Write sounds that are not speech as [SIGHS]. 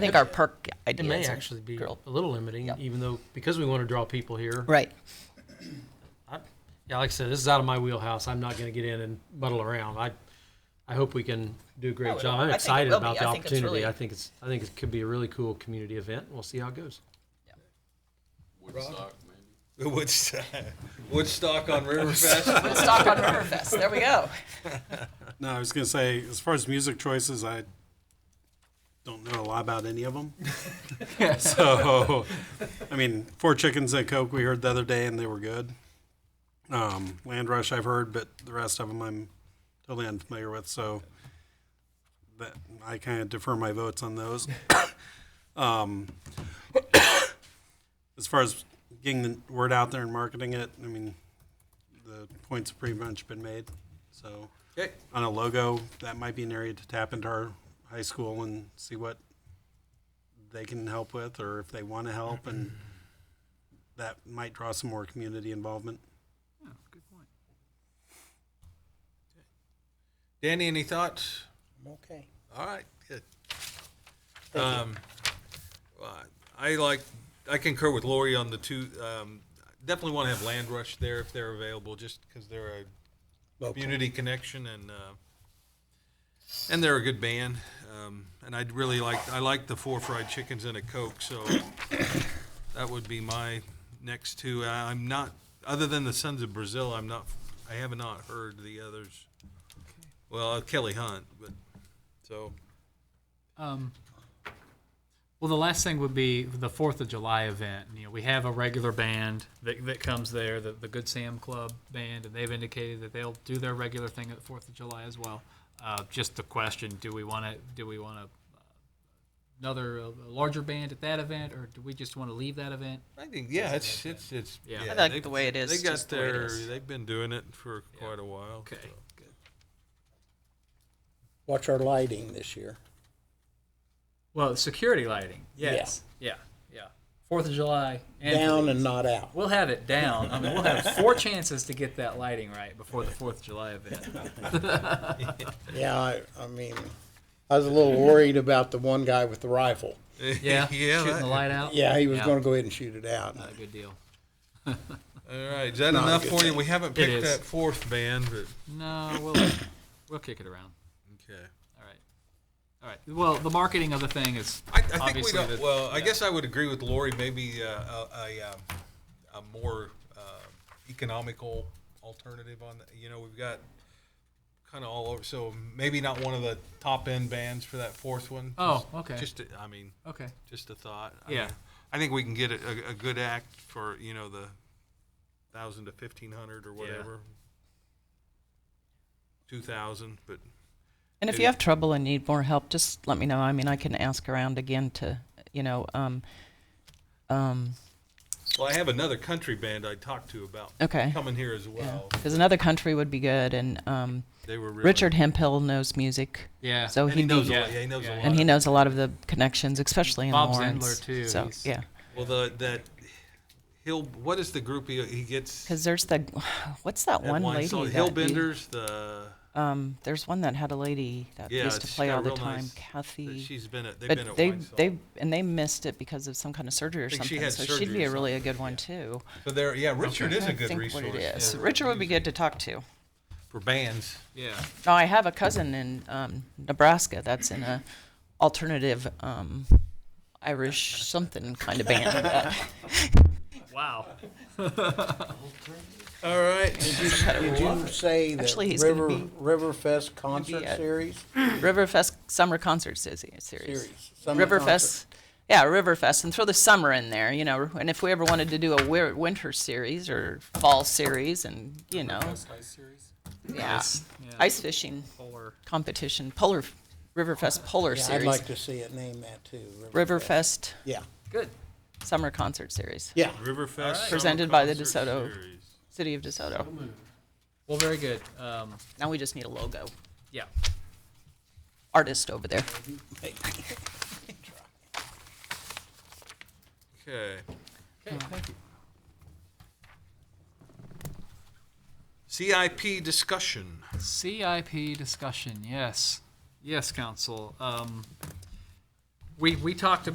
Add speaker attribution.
Speaker 1: think our perk idea
Speaker 2: It may
Speaker 1: is a
Speaker 2: actually be
Speaker 1: girl.
Speaker 2: a little limiting,
Speaker 1: Yep.
Speaker 2: even though, because we want to draw people here.
Speaker 1: Right.
Speaker 2: I- Yeah, like I said, this is out of my wheelhouse. I'm not going to get in and muddle around. I, I hope we can do a
Speaker 1: Oh,
Speaker 2: great
Speaker 1: it-
Speaker 2: job.
Speaker 1: I
Speaker 2: I'm
Speaker 1: think it
Speaker 2: excited
Speaker 1: will be.
Speaker 2: about the
Speaker 1: I think it's really-
Speaker 2: opportunity. I think it's, I think it could be a really cool community event. We'll see how it goes.
Speaker 3: Woodstock, maybe.
Speaker 4: Woodstock, [LAUGHS] Woodstock on Riverfest.
Speaker 1: Stock on Riverfest. There we go.
Speaker 5: No, I was gonna say, as far as music choices, I don't know a lot about any of them. [LAUGHS] so, I mean, Four Chickens and Coke we heard the other day and they were good. Um, Land Rush I've heard, but the rest of them I'm totally unfamiliar with. So that I kind of defer my votes on those. [COUGHS] um, [COUGHS] as far as getting the word out there and marketing it, I mean, the points have pretty much been made. So
Speaker 4: Okay.
Speaker 5: on a logo, that might be an area to tap into our high school and see what they can help with or if they want to help and that might draw some more community involvement.
Speaker 4: Danny, any thoughts?
Speaker 6: I'm okay.
Speaker 4: All right, good. Um, well, I like, I concur with Lori on the two, um, definitely want to have Land Rush there if they're available, just because they're a community connection and, uh, and they're a good band. Um, and I'd really like, I like the four fried chickens and a Coke, so that would be my next two. I- I'm not, other than the Sons of Brazil, I'm not, I have not heard the others. Well, uh, Kelly Hunt, but, so.
Speaker 7: Um, well, the last thing would be the Fourth of July event. You know, we have a regular band that, that comes there, the, the Good Sam Club band, and they've indicated that they'll do their regular thing at the Fourth of July as well. Uh, just the question: Do we want to? Do we want to? Another uh, larger band at that event, or do we just want to leave that event?
Speaker 4: I think yeah, it's it's it's
Speaker 7: Yeah. I
Speaker 1: I like
Speaker 4: they've-
Speaker 1: the way it is.
Speaker 4: They got
Speaker 1: just the way it
Speaker 4: their
Speaker 1: is.
Speaker 4: they've been doing it for quite a while.
Speaker 7: Okay. Good.
Speaker 6: Watch our lighting this year.
Speaker 7: Well, security lighting. Yes. Yeah. Yeah. Fourth of July. And
Speaker 6: Down and not out.
Speaker 7: We'll have it down. I mean, we'll have four [LAUGHS] chances to get that lighting right before the Fourth of July event.
Speaker 6: Yeah, I, I mean, I was a little worried about the one guy with the rifle.
Speaker 7: Yeah,
Speaker 4: [LAUGHS] yeah.
Speaker 7: [LAUGHS] shooting
Speaker 4: that-
Speaker 7: the light out.
Speaker 6: Yeah, he was
Speaker 7: Yeah.
Speaker 6: going to go ahead and shoot it out.
Speaker 7: Not a good deal.
Speaker 4: all right, is that
Speaker 6: Not a
Speaker 4: enough
Speaker 6: good
Speaker 4: for you? We haven't picked
Speaker 7: is.
Speaker 4: that fourth band, but
Speaker 7: No, we'll [COUGHS] we'll kick it around.
Speaker 4: okay.
Speaker 7: All right, all right. Well, the marketing of the thing is
Speaker 4: I, I think we
Speaker 7: obviously
Speaker 4: don't.
Speaker 7: the-
Speaker 4: well, I
Speaker 7: yeah.
Speaker 4: guess I would agree with Lori. Maybe uh, a, a, um, a more uh, economical alternative on. The, you know, we've got kind of all over. So maybe not one of the top end bands for that fourth one.
Speaker 7: Oh, okay.
Speaker 4: Just to- I mean,
Speaker 7: okay.
Speaker 4: Just a thought. I
Speaker 7: Yeah.
Speaker 4: mean, I think we can get a, a good act for, you know, the thousand to fifteen hundred or whatever. Two thousand, but
Speaker 1: And if you have trouble and need more help, just let me know. I mean, I can ask around again to, you know, um, um,
Speaker 4: well, I have another country band I talked to about
Speaker 1: okay.
Speaker 4: coming here as well.
Speaker 1: Because another country would be good. And um,
Speaker 4: They were really
Speaker 1: Richard Hempill knows music,
Speaker 7: Yeah.
Speaker 1: so
Speaker 4: And
Speaker 1: he
Speaker 4: he knows a
Speaker 7: yeah,
Speaker 4: lot. Yeah, he knows a
Speaker 7: yeah.
Speaker 4: lot.
Speaker 1: and he knows a lot of the connections, especially in
Speaker 7: Bob
Speaker 1: Lawrence.
Speaker 7: Zandler, too.
Speaker 1: So
Speaker 7: He's-
Speaker 1: yeah,
Speaker 4: Well, the that he'll what is the group he, he gets?
Speaker 1: because there's the [SIGHS] what's that
Speaker 4: that
Speaker 1: one
Speaker 4: wine
Speaker 1: lady?
Speaker 4: song,
Speaker 1: that you-
Speaker 4: Hillbenders. The
Speaker 1: um, there's one that had a lady that
Speaker 4: yeah,
Speaker 1: used to
Speaker 4: she's
Speaker 1: play
Speaker 4: got a
Speaker 1: all the
Speaker 4: real
Speaker 1: time,
Speaker 4: nice-
Speaker 1: Kathy.
Speaker 4: She's been at. They've been
Speaker 1: but
Speaker 4: at
Speaker 1: they
Speaker 4: wine song.
Speaker 1: they and they missed it because of some kind of surgery or
Speaker 4: think she
Speaker 1: something.
Speaker 4: had
Speaker 1: so she'd
Speaker 4: surgery
Speaker 1: be
Speaker 4: or
Speaker 1: a really a
Speaker 4: something,
Speaker 1: good one too.
Speaker 4: so there, yeah, Richard is a
Speaker 1: I
Speaker 4: good
Speaker 1: think
Speaker 4: resource
Speaker 1: what it
Speaker 4: yeah,
Speaker 1: is. Richard would be good to talk to.
Speaker 4: for bands.
Speaker 7: Yeah.
Speaker 1: Now I have a cousin in um, Nebraska that's in a alternative um, Irish something kind of band.
Speaker 4: [LAUGHS]
Speaker 1: Uh,
Speaker 7: Wow.
Speaker 4: All right.
Speaker 6: Did you say that
Speaker 1: Actually, he's gonna
Speaker 6: River
Speaker 1: be-
Speaker 6: Riverfest concert
Speaker 1: at-
Speaker 6: series?
Speaker 1: Riverfest summer concert series.
Speaker 6: Series.
Speaker 1: series.
Speaker 6: summer concert.
Speaker 1: Riverfest. Yeah, Riverfest, and throw the summer in there, you know. And if we ever wanted to do a wi- winter series or fall series, and you know, yeah,
Speaker 7: Nice, yeah.
Speaker 1: ice fishing
Speaker 7: Polar.
Speaker 1: competition, polar Riverfest polar
Speaker 6: Oh, Yeah, I'd
Speaker 1: series,
Speaker 6: like to see it name that too.
Speaker 1: Riverfest
Speaker 6: Yeah,
Speaker 7: Good.
Speaker 1: summer concert series,
Speaker 6: yeah.
Speaker 4: Riverfest. Summer
Speaker 1: Presented by the
Speaker 4: Concert
Speaker 1: DeSoto.
Speaker 4: Series.
Speaker 1: City of DeSoto.
Speaker 7: Well, very good. Um,
Speaker 1: Now we just need a logo
Speaker 7: yeah.
Speaker 1: artist over there.
Speaker 4: Okay.
Speaker 7: Okay. Thank you.
Speaker 4: CIP discussion.
Speaker 7: CIP discussion, yes. Yes, council. Um, we, we talked